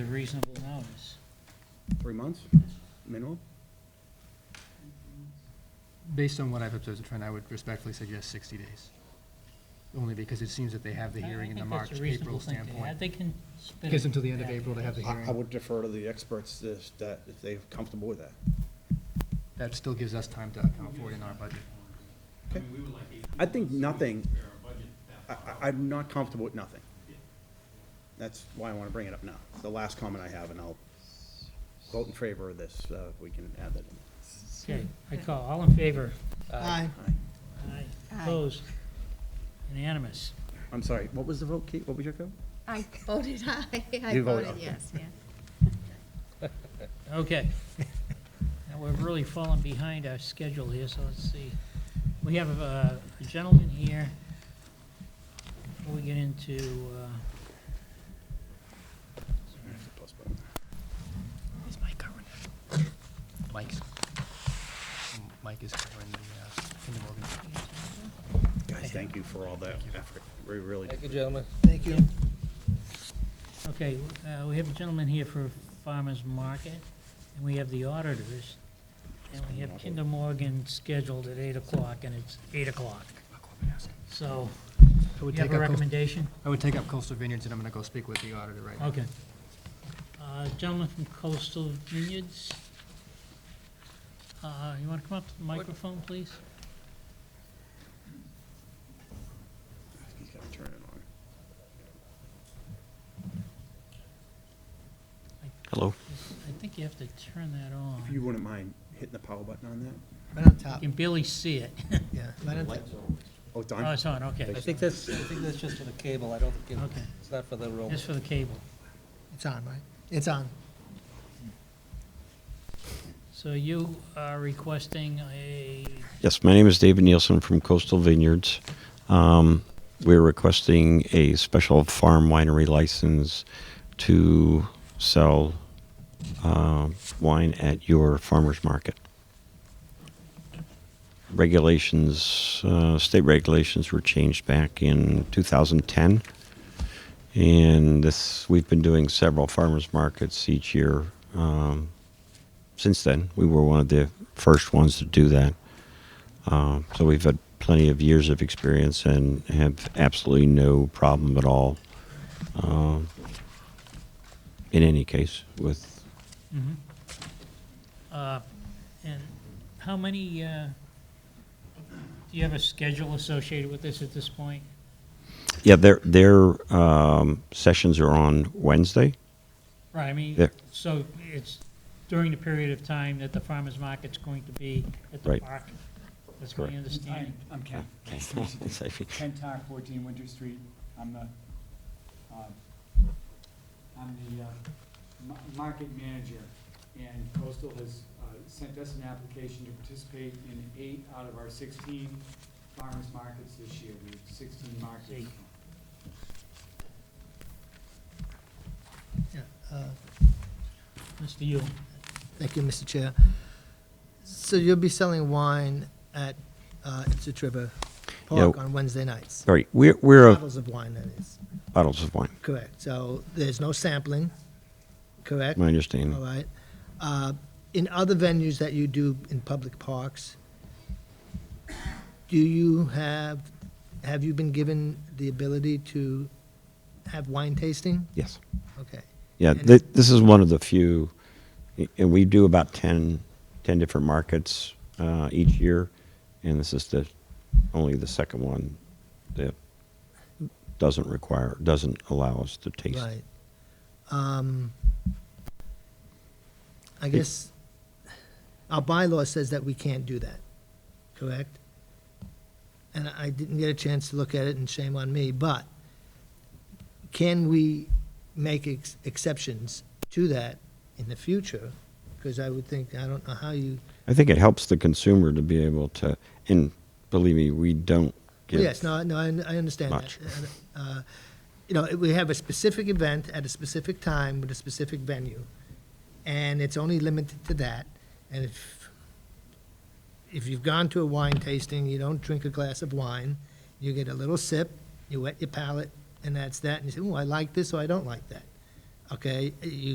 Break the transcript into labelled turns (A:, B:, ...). A: a reasonable notice.
B: Three months minimum?
C: Based on what I've observed in trend, I would respectfully suggest 60 days. Only because it seems that they have the
A: I- I
C: hearing in the
A: think that's
C: March,
A: a reasonable
C: April
A: thing to have.
C: standpoint.
A: They can spit it
C: Gives them till the end of
A: back.
C: April to have the
B: I, I
C: hearing.
B: would defer to the experts if, that, if they're comfortable with that.
C: That still gives us time to account for it in our budget.
D: I mean, we would like eight
B: I think
D: weeks to
B: nothing-
D: prepare our budget that
B: I,
D: far
B: I, I'm not comfortable with nothing. That's why I wanna bring it up now. It's the last comment I have, and I'll vote in favor of this, uh, if we can add that in.
A: Okay, I call, all in favor?
E: Aye.
B: Aye.
A: Aye.
E: Aye.
A: Opposed? Unanimous.
B: I'm sorry, what was the vote, Kate? What was your vote?
E: I voted aye. I
B: You voted
E: voted
B: aye.
E: yes, yeah.
A: Okay. Now, we're really falling behind our schedule here, so let's see. We have uh, a gentleman here. Before we get into, uh,
C: Is Mike covering it? Mike's, Mike is covering the, uh, Kinder Morgan.
B: Guys, thank you for all that effort. We really,
F: Thank you, gentlemen.
A: okay, uh, we have a gentleman here for Farmers Market, and we have the auditors, and we have Kinder Morgan scheduled at 8 o'clock, and it's 8 o'clock. So,
C: I would
A: you have
C: take
A: a
C: up, Coast-
A: recommendation?
C: I would take up Coastal Vineyards and I'm gonna go speak with the auditor right now.
A: Okay. Uh, Gentleman from Coastal Vineyards. Uh, You want to come up to the microphone, please?
B: he's gotta turn it
G: Hello.
A: I think you have to turn that
B: on.
A: on.
B: If you wouldn't mind hitting the power button on that?
F: Right on
A: You
F: top,
A: can barely see it.
F: yeah. Right on top.
B: Oh, it's
A: Oh,
B: on?
A: it's on, okay,
F: I think that's, I think that's just for the cable, I don't think, it-
A: Okay.
F: it's not for the room.
A: just for the cable.
F: It's on, right? It's on.
A: So you are requesting a,
G: Yes, my name is David Nielsen from Coastal Vineyards. Um, we're requesting a special farm winery license to sell uh, wine at your farmer's market. Regulations, uh, state regulations were changed back in 2010. And this, we've been doing several farmers markets each year um, since then. We were one of the first ones to do that. Um, so we've had plenty of years of experience and have absolutely no problem at all. Um, in any case, with
A: mhm. Uh, and how many, uh, do you have a schedule associated with this at this point?
G: yeah, their their um, sessions are on Wednesday.
A: Right, I mean,
G: Yeah.
A: so it's during the period of time that the farmer's market's going to be at the
G: Right.
A: park? That's my
G: Correct.
A: understanding.
H: I'm Ken. Ken Tar, 14 Winter Street. I'm the, um, I'm the uh, ma- market manager. And Coastal has uh, sent us an application to participate in eight out of our 16 farmers markets this year. We have 16 markets.
A: Eight.
F: Yeah, uh,
A: Mr. Yule,
F: Thank you, Mr. Chair. So you'll be selling wine at uh, Ipswich River Park
G: Yeah.
F: on Wednesday nights?
G: All right, we're we're a,
F: Bottles of wine, that is,
G: bottles of wine.
F: correct. So there's no sampling, correct?
G: My
F: All
G: understanding.
F: right. Uh, In other venues that you do in public parks, do you have, have you been given the ability to have wine tasting?
G: Yes.
F: Okay.
G: Yeah,
F: And-
G: th- this is one of the few, and we do about 10, 10 different markets uh, each year, and this is the only the second one that doesn't require doesn't allow us to taste.
F: Right. Um, I guess our bylaw says that we can't do that, correct? And I didn't get a chance to look at it, and shame on me, but can we make ex- exceptions to that in the future? Because I would think, I don't know how you,
G: I think it helps the consumer to be able to, and believe me, we don't give.
F: yes, no, no, I I understand that.
G: Much.
F: Uh, You know, we have a specific event at a specific time with a specific venue. and it's only limited to that. And if, if you've gone to a wine tasting, you don't drink a glass of wine, you get a little sip, you wet your palate, and that's that, and you say, oh, I like this or I don't like that. Okay, you